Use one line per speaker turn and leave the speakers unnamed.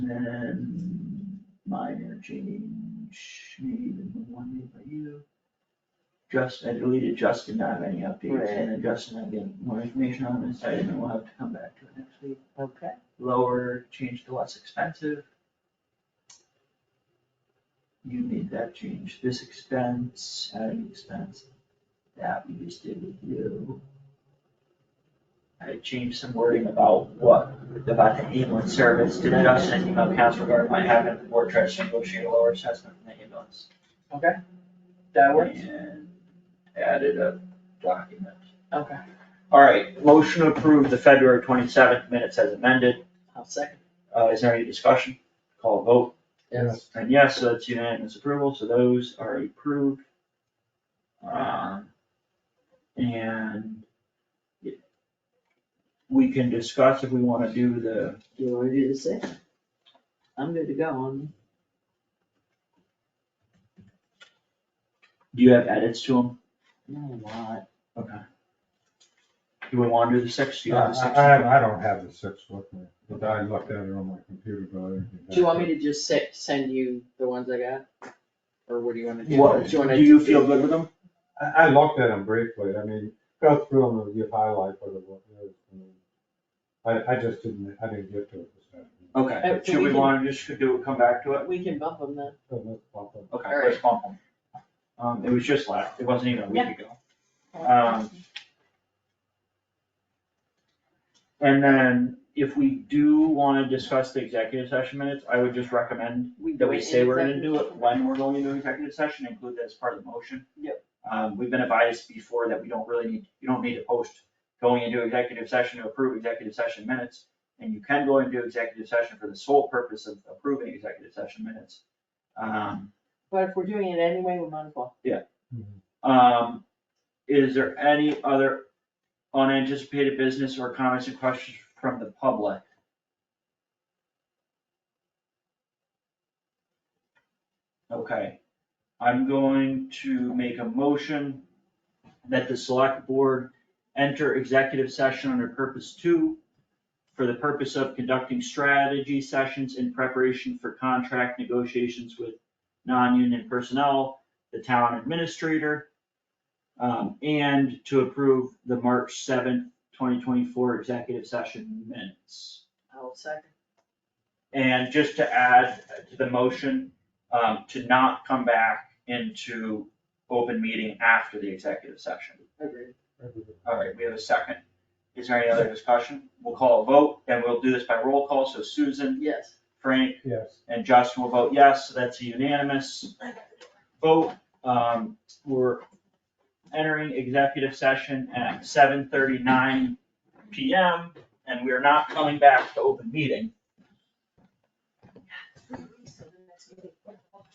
then minor change, maybe the one made by you. Justin, I deleted Justin, not have any updates, and then Justin, I get more information on this item, and we'll have to come back to it next week.
Okay.
Lower, change to less expensive. You made that change, this expense, adding expense, that we just did with you. I changed some wording about what, about the ambulance service to Justin, and email council regarding my having the board tries to negotiate a lower assessment from the ambulance.
That works?
And added a document.
Okay.
All right, motion to approve the February twenty-seventh minutes as amended.
I'll second.
Uh, is there any discussion? Call a vote.
Yes.
And yes, so that's unanimous approval, so those are approved. Um, and it- we can discuss if we wanna do the,
You wanna do the same? I'm good to go on.
do you have edits to them?
No, a lot.
Okay. Do we wanna do the six? Do you have the
I,
Uh,
six?
I, I don't have the six with me, but I looked at it on my computer, but I didn't.
Do you want me to just se- send you the ones I got? Or what do you wanna do?
What,
you wanna
do you feel good with them?
I, I looked at them briefly, I mean, go through them and you highlight what it was. I mean, I, I just didn't, I didn't get to it this afternoon.
Okay,
Uh, so
should
we
we
can-
wanna just do, come back to it?
We can bump them then.
So let's bump them.
Okay,
Alright.
let's bump them. Um, it was just last, it wasn't even a week
Yeah.
ago. Um, And then if we do wanna discuss the executive session minutes, I would just recommend that we
do it
say
in
we're gonna do it
executive
when we're going into executive session, include that as part of the motion.
Yep.
Um, we've been advised before that we don't really need, you don't need to post going into executive session to approve executive session minutes. And you can go into executive session for the sole purpose of approving executive session minutes. Um,
But if we're doing it anyway, we might as well.
Um, is there any other unanticipated business or comments and questions from the public? Okay, I'm going to make a motion that the select board enter executive session under purpose two for the purpose of conducting strategy sessions in preparation for contract negotiations with non-union personnel, the town administrator, um, and to approve the March seventh, twenty twenty-four executive session minutes.
I'll second.
And just to add to the motion, um, to not come back into open meeting after the executive session.
Agreed.
All right, we have a second. Is there any other discussion? We'll call a vote and we'll do this by roll call. So Susan,
Yes.
Frank,
Yes.
and Justin will vote yes, so that's a unanimous vote. Um, we're entering executive session at seven thirty-nine PM, and we are not coming back to open meeting.